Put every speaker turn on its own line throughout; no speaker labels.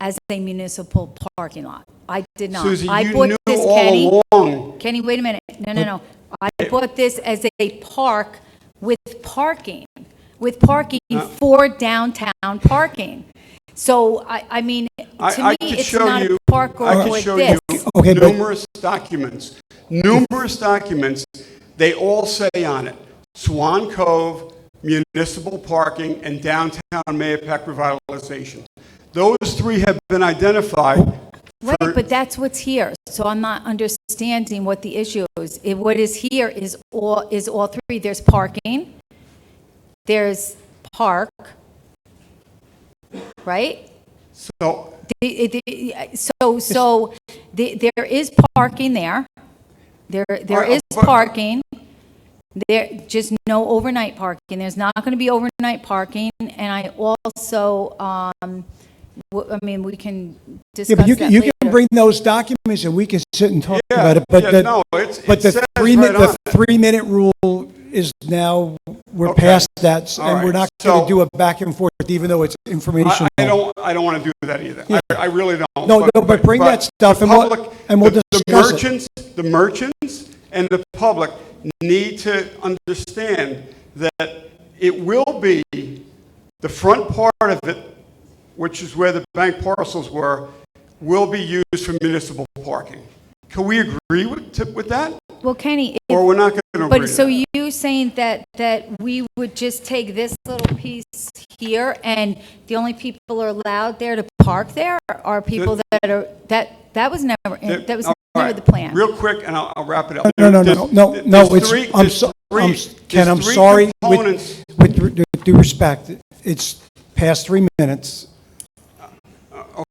as a municipal parking lot. I did not.
Susan,
I
you
bought
knew
this,
all
Kenny.
along.
Kenny, wait a minute. No, no, no. I bought this as a park with parking, with parking
Uh,
for downtown parking. So I, I mean,
I-
to
I
me,
could
it's
show
not a
you-
park
I
or
could
with
show
this.
you
Okay, but-
numerous documents, numerous documents. They all say on it Swan Cove, municipal parking, and downtown Mayapack revitalization. Those three have been identified.
Right,
for-
but that's what's here. So I'm not understanding what the issue is. It- What is here is all, is all three. There's parking, there's park, right?
so
The- the- So, so the- there is parking there. There, there
Uh,
is
but-
parking. There, just no overnight parking. There's not going to be overnight parking. And I also, um, w- I mean, we can
Yeah,
discuss
but
that
you can, you
later.
can bring those documents and we can sit and talk
Yeah,
about it, but
yeah,
the,
no, it's-
but
it
the
says
three, mi-
right on
the
it.
three-minute rule is now, we're
Okay.
past that,
All
and we're
right,
not gonna
so-
do a back and forth, even though it's
I,
informational.
I don't, I don't want to do that either. I, I really don't.
No, no, but bring that stuff
the
and we'll-
public-
and we'll
the-
discuss it.
The merchants, the merchants and the public need to understand that it will be the front part of it, which is where the bank parcels were, will be used for municipal parking. Can we agree with, to- with that?
Well, Kenny, if
Or we're not going to agree?
But so
to that?
you saying that, that we would just take this little piece here and the only people are allowed there to park there are people that are, that, that was never, that was
All
never
right.
the plan.
Real quick, and I'll, I'll wrap it up.
No, no, no, no,
There's-
no, no,
there's
it's,
three-
I'm,
there's
so- I'm,
three-
s- Ken,
there's
I'm
three
sorry,
components.
with, with due- due respect, it's past three minutes.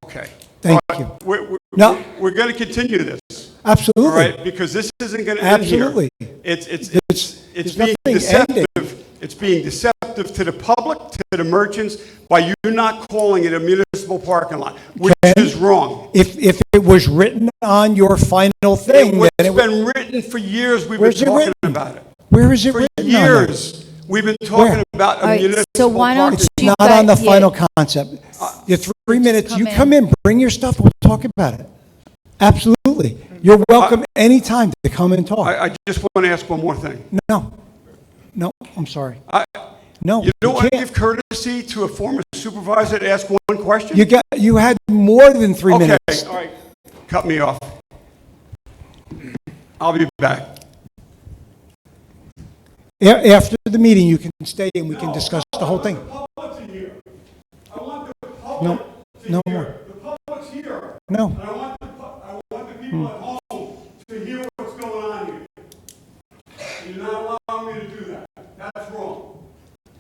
Okay.
Thank
All right,
you.
We're, we're-
No.
we're- we're going to continue this, all
Absolutely.
right? Because this isn't going to end here.
Absolutely.
It's, it's,
It's-
it's, it's
there's
being
nothing ending.
deceptive. It's being deceptive to the public, to the merchants, by you not calling it a municipal parking lot, which
Ken?
is wrong.
If, if it was written on your final thing, then it
It's
would,
been written for years, we've been
Where's it
talking
written?
about it.
where is it
For
written on there?
years, we've been talking
Where?
about
All
a
right,
municipal
so why don't
parking.
It's
you
not on the
got- yeah.
final concept. Your three minutes,
come
you
in.
come in, bring your stuff, we'll talk about it. Absolutely. You're welcome anytime to come and talk.
I, I just want to ask one more thing.
No, no, I'm sorry.
I-
No,
You
you
don't want to give
can't.
courtesy to a former supervisor to ask one question?
You got, you had more than three
Okay,
minutes.
all right, cut me off. I'll be back.
A- After the meeting, you can stay and we can discuss the whole thing. No, no more. No,
I want the, I want the people at home to hear what's going on here. You're not allowing me to do that. That's wrong,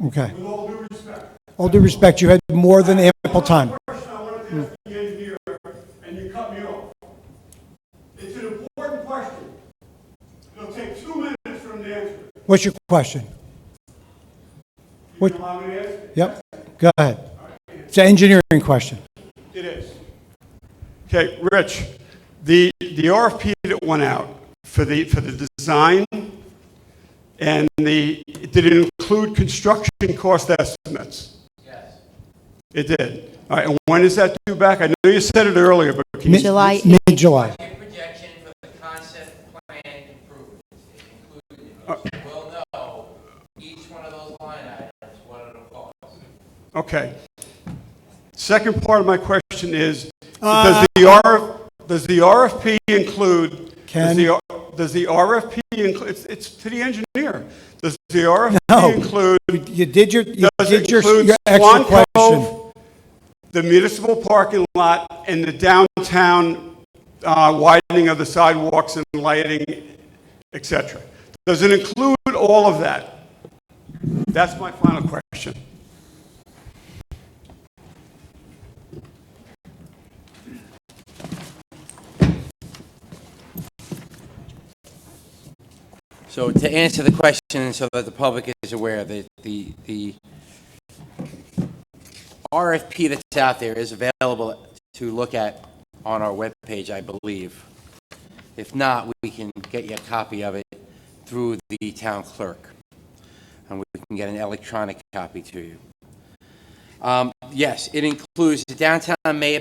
okay.
with all due respect.
All due respect, you had more than ample time.
Question I wanted to ask the engineer, and you cut me off. It's an important question. It'll take two minutes from the answer.
What's your question?
You
What-
can allow me to ask? it?
Yep, go ahead. It's an engineering question.
It is. Okay, Rich, the, the RFP that went out for the, for the design and the, did it include construction cost estimates? Yes. It did. All right, and when is that due back? I know you said it earlier, but can you?
Mid-
July
Mid-July.
Your projection for the concept plan improvements is included. in this. We'll know each one of those line items, what it'll cost.
Okay. Second part of my question is,
Uh,
does the RF, does the RFP include, does
Ken?
the, does the RFP include, it's, it's to the engineer. Does the RFP
No.
include,
You you did your, you
does
did
it
your,
include
your extra
Swan
question.
Cove, the municipal parking lot, and the downtown uh, widening of the sidewalks and lighting, et cetera? Does it include all of that? That's my final question.
So to answer the question, so that the public is aware, the, the, the RFP that's out there is available to look at on our webpage, I believe. If not, we can get you a copy of it through the town clerk, and we can get an electronic copy to you. Um, Yes, it includes the downtown Mayor